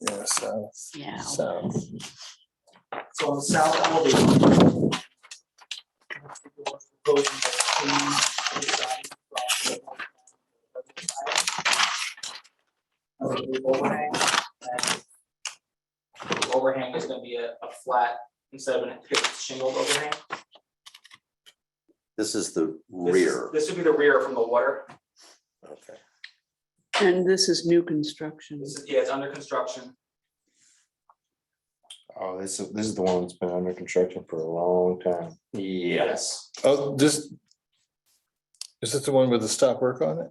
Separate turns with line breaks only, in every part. business, so,
Yeah.
so.
So on South Elevation. proposing that change the size from the of the Overhang. and the Overhang is gonna be a, a flat instead of a shingled overhang.
This is the
This is-
rear.
This would be the rear from the water.
okay.
And this is new construction.
This is, yeah, it's under construction.
Oh, this is, this is the one that's been under construction for a long time.
Yes.
Oh, this. Is this the one with the stop work on it?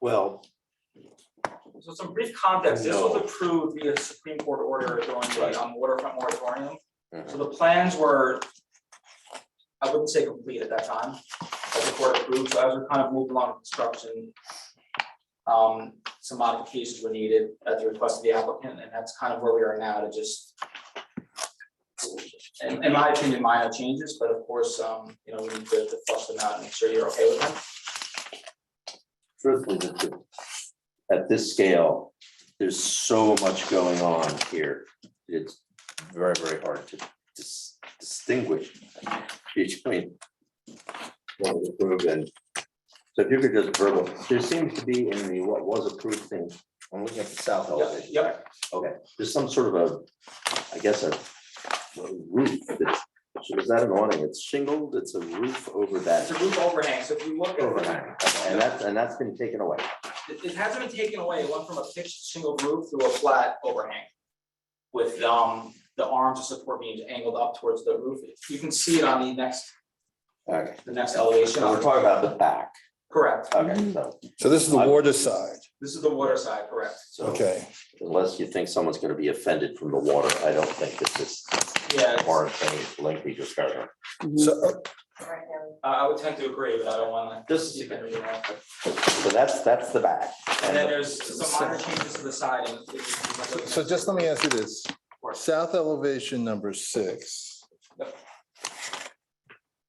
Well,
So some brief context, this was
No.
approved via Supreme Court order during
Right.
the um, waterfront moratorium. So
mhm,
the plans were, I wouldn't say complete at that time, as the court approved, so as we kind of moved along with construction. Um, some modifications were needed at the request of the applicant, and that's kind of where we are now to just. In, in my opinion, minor changes, but of course, um, you know, we need to to flush them out and make sure you're okay with them.
truthfully, the- the- at this scale, there's so much going on here. It's very, very hard to dis- distinguish between what was approved and, so if you could just verbal, there seems to be in the what was approved thing, I'm looking at the south elevation.
Yep,
Okay, there's some sort of a, I guess, a a roof that's, is that an awning? It's shingled, it's a roof over
it's a
that
roof overhang, so if you look at.
overhang. And that's, and that's been taken away.
It, it hasn't been taken away, it went from a fixed shingle roof to a flat overhang. With, um, the arms of support beams angled up towards the roof, you can see it on the next,
Okay,
the next elevation.
so we're talking about the back.
Correct,
Okay, so,
So this is the water side,
this is the water side, correct,
so
okay.
unless you think someone's gonna be offended from the water, I don't think this is
yeah, it's-
warrant any lengthy discussion.
Mhm.
So,
I, I would tend to agree, but I don't wanna.
This is-
You can read that.
So that's, that's the back.
And then there's some minor changes to the side and.
so just let me uh, ask you this,
Of
south elevation number six.
Yep.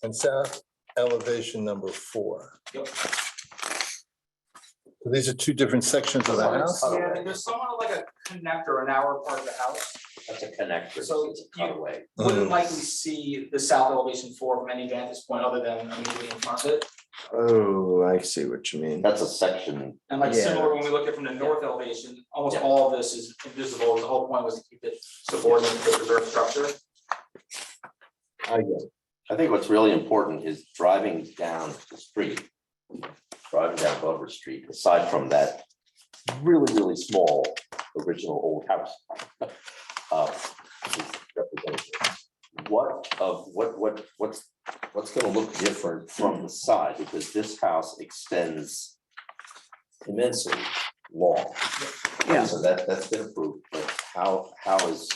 And south elevation number four.
Yep.
These are two different sections of the house?
Yeah, and there's somewhat like a connector, an hour part of the house.
That's a connector,
So
so it's
you-
a cutaway.
Mm-hmm.
Wouldn't likely see the south elevation four from any vantage point other than immediately in front of it.
Oh, I see what you mean.
That's a section,
And like
Yeah.
similar, when we look at from the north elevation, almost
Yeah.
all of this is invisible, the whole point was to keep it subordinate to the reserve structure.
I guess. I think what's really important is driving down the street. Driving down Glover Street, aside from that really, really small original old house. uh, is representative. What of, what, what, what's, what's gonna look different from the side, because this house extends immensely long.
Yeah.
So that, that's been approved, but how, how is,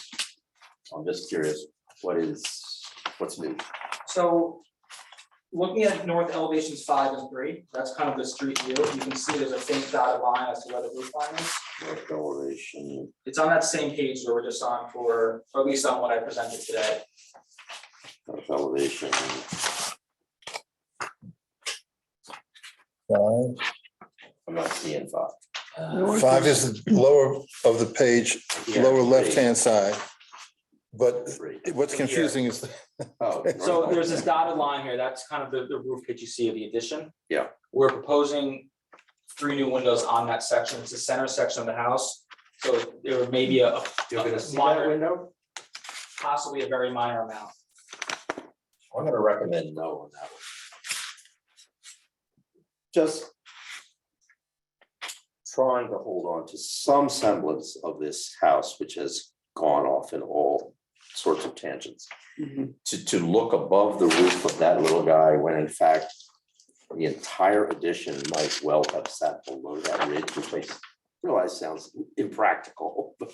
I'm just curious, what is, what's new?
So looking at north elevations five and three, that's kind of the street view, you can see there's a faint dotted line as to where the roof line is.
North elevation,
It's on that same page where we're just on for, or at least on what I presented today.
north elevation,
Five
I'm not seeing five.
North
Five is the lower of the page, lower
Yeah,
left-hand side. But
three.
what's
Here.
confusing is,
Oh,
So
north
there's this
elevation.
dotted line here, that's kind of the, the roof pitch you see of the addition.
Yeah.
We're proposing three new windows on that section, it's the center section of the house, so there may be a,
You're gonna see
Minor-
that window?
possibly a very minor amount.
I'm gonna recommend no on that one. Just trying to hold on to some semblance of this house, which has gone off in all sorts of tangents.
Mhm.
To, to look above the roof of that little guy, when in fact, the entire addition might well have sat below that ridge, which makes, realize sounds impractical.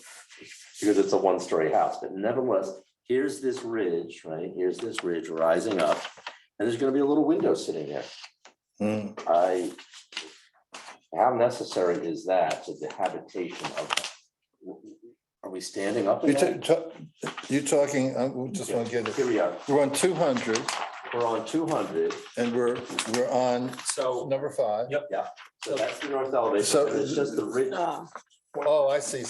Because it's a one-story house, but nevertheless, here's this ridge, right? Here's this ridge rising up, and there's gonna be a little window sitting there.
Hmm,
Mm. I, how necessary is that to the habitation of? Are we standing up? in
you're ta-
that?
ta- you're talking, I just want to get it,
Here we are,
we're on two hundred
we're on two hundred,
and we're, we're on
So
number five.
Yep.
so that's the north elevation,
So-
and it's just the ridge.
Ah.
Oh, I see.